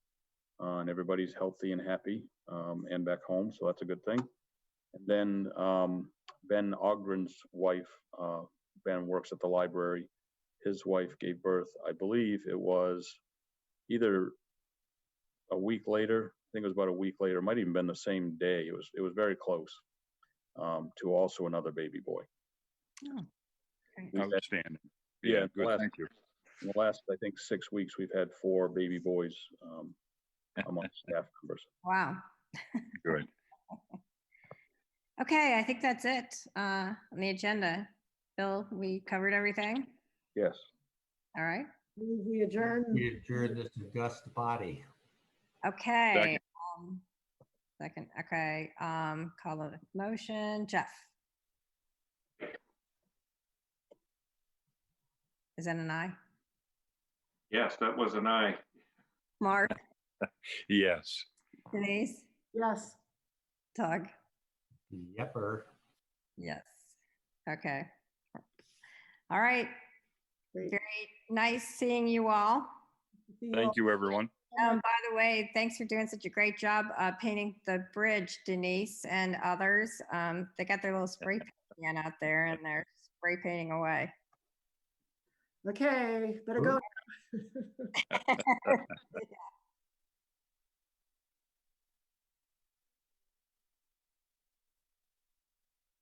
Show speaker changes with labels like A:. A: uh, and everybody's healthy and happy, um, and back home, so that's a good thing. And then, um, Ben Ogren's wife, uh, Ben works at the library. His wife gave birth, I believe it was either a week later, I think it was about a week later, it might even been the same day. It was, it was very close, um, to also another baby boy.
B: Oh, okay.
A: We've had
C: Outstanding.
A: Yeah,
C: Yeah, good,
A: last-
C: thank you.
A: in the last, I think, six weeks, we've had four baby boys um, among staff members.
B: Wow.
C: Good.
B: Okay, I think that's it uh, on the agenda. Bill, we covered everything.
A: Yes.
B: All right.
D: We adjourn.
E: We adjourn this august body.
B: Okay. um, Second, okay. um, Call the motion. Jeff? Is that an aye?
F: Yes, that was an aye.
B: Mark,
C: Yes.
B: Denise,
D: Yes.
B: Doug?
E: Yepper.
B: Yes. Okay. All right.
D: Great.
B: Very nice seeing you all.
C: Thank you, everyone.
B: Um, by the way, thanks for doing such a great job uh, painting the bridge, Denise and others. Um, they got their little spray paint can out there and they're spray painting away.
D: Okay, better go.